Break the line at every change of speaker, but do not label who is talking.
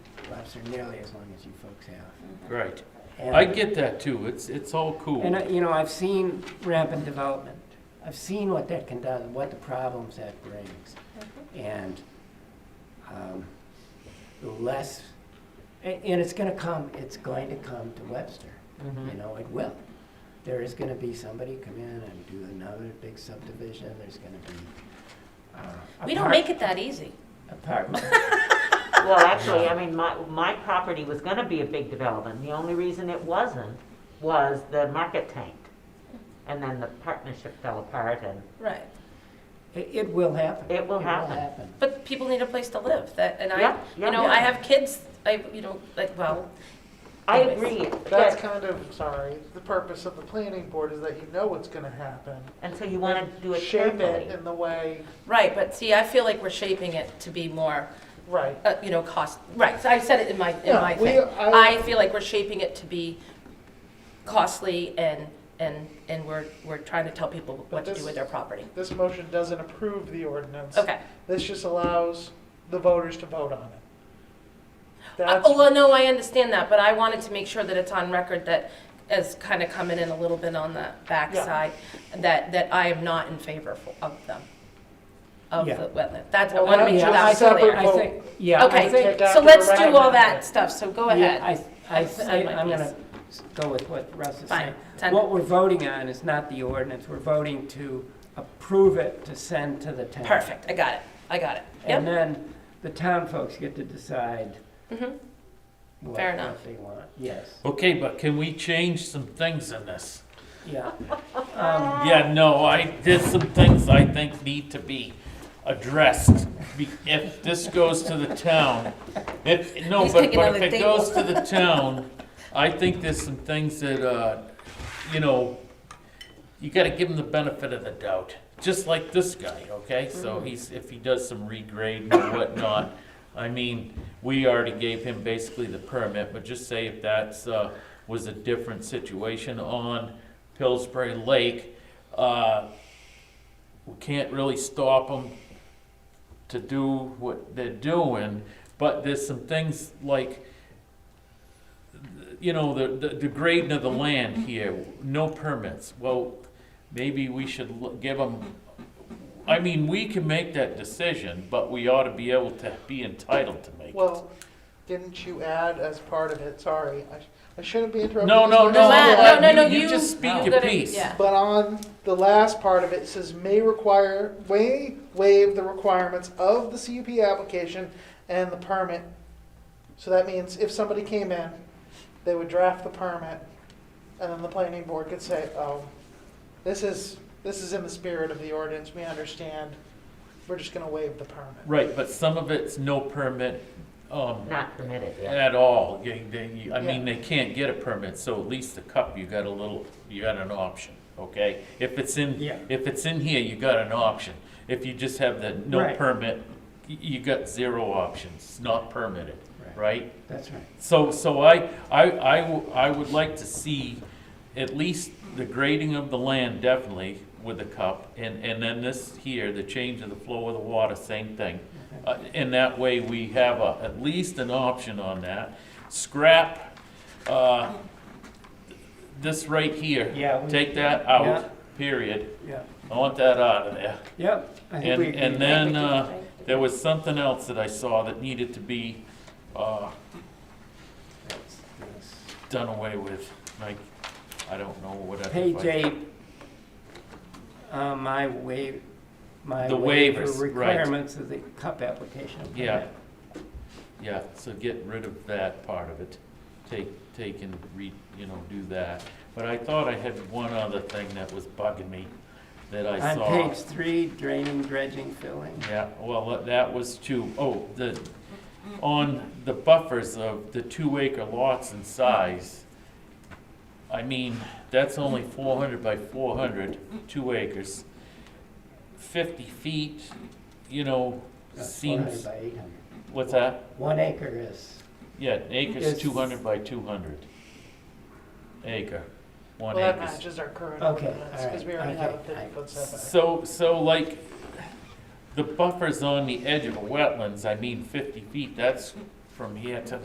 officer nearly as long as you folks have.
Right.
And-
I get that too. It's, it's all cool.
And, uh, you know, I've seen rampant development. I've seen what that can do, what the problems that brings. And um, the less, a- and it's gonna come, it's going to come to Webster.
Mm-hmm.
You know, it will. There is gonna be somebody come in and do another big subdivision, there's gonna be. uh,
We don't
apart-
make it that easy.
Apartment.
Well, actually, I mean, my, my property was gonna be a big development. The only reason it wasn't was the market tanked. And then the partnership fell apart and,
Right.
It it will happen.
It will happen.
But people need a place to live. That and I,
Yeah, yeah,
you know,
yeah.
I have kids. I, you know, like well,
I agree,
That's
but,
kind of, sorry, the purpose of the planning board is that you know what's gonna happen.
and so you wanna do it
Shape
carefully.
it in the way,
right. But see, I feel like we're shaping it to be more,
right.
uh, you know, cost. Right. So I said it in my in
Yeah,
my
we-
thing.
I-
I, feel like we're shaping it to be costly and and and we're we're trying to tell people
But
what to do
this-
with their property.
This motion doesn't approve the ordinance.
Okay.
This just allows the voters to vote on it.
Uh,
That's,
oh, well, no, I understand that, but I wanted to make sure that it's on record that as kind of coming in a little bit on the
Yeah.
backside, that, that I am not in favor fo- of them, of
Yeah.
the wetland. That's, I
Well,
want to
that'd
make
be
sure
a
that's
separate
clear.
vote.
I think, yeah, I think.
Okay,
take out
so
the
let's do all
referendum.
that stuff, so go
Yeah,
ahead.
I, I,
I've said my
I- I'm gonna
piece.
go with what Russ is saying.
Fine, ten.
What we're voting on is not the ordinance, we're voting to approve it to send to the town.
Perfect, I got it, I got it.
And
Yep,
then the town folks get to decide
Mhm.
what
Fair
what
enough.
they want, yes,
Okay, but can we change some things in this?
yeah. Um,
Yeah, no, I, there's some things I think need to be addressed. Be- If this goes to the town, if, no,
He's
but,
taking
but
on
if
the
it goes to the town, I think there's some things that, uh, you know, you gotta give him the benefit of the doubt, just like this guy, okay? So
Mm-hmm.
he's, if he does some regrading or whatnot, I mean, we already gave him basically the permit, but just say if that's, uh, was a different situation on Pillsbury Lake, uh, we can't really stop them to do what they're doing, but there's some things like, you know, the, the, the grading of the land here, no permits, well, maybe we should l- give them, I mean, we can make that decision, but we ought to be able to be entitled to make it.
well, didn't you add as part of it, sorry, I, sh- I shouldn't be interrupting.
No,
this
no,
one.
no,
Well, no, no, no,
you- you
you-
just speak
you
your
gotta-
piece.
yeah.
But on the last part of it, it says may require, may waive the requirements of the CUP application and the permit. So that means if somebody came in, they would draft the permit, and then the planning board could say, oh, this is, this is in the spirit of the ordinance, we understand, we're just gonna waive the permit.
Right, but some of it's no permit, um,
Not permitted, yeah.
At all, They- they- I mean, they can't get a permit, so at least the cup, you got a little, you got an option, okay? If it's in,
Yeah.
if it's in here, you got an option. If you just have the no
Right.
permit, y- you got zero options, not permitted,
Right.
right?
That's right.
So, so I, I, I, w- I would like to see at least the grading of the land definitely with the cup, and, and then this here, the change of the flow of the water, same thing. Uh, and that way we have a, at least an option on that. Scrap, uh, this right here.
Yeah, we-
Take that
Yeah.
out, period.
Yep,
I want that out of there.
yep. I think
And,
we agree.
and then, uh, there was something else that I saw that needed to be, uh,
That's this.
done away with, like, I don't know what I.
Page eight, uh, my waive, my
The
waiver
waivers, right.
requirements of the cup application.
Yeah. Yeah, so get rid of that part of it, take, take and re, you know, do that. But I thought I had one other thing that was bugging me that I
On
saw.
page three, draining, dredging, filling.
Yeah, well, that- that was two, oh, the, on the buffers of the two acre lots and size, I mean, that's only four hundred by 400, two acres. Fifty feet, you know,
That's 400
seems,
by 800.
what's that?
One acre is,
Yeah, an acre's
It's-
two hundred by two hundred. Acre,
Well,
one
that
acre.
matches our current
Okay,
ordinance, because
alright,
we already have a
okay,
fifty-foot setback.
So, so like, the buffers on the edge of a wetlands, I mean fifty feet, that's from here to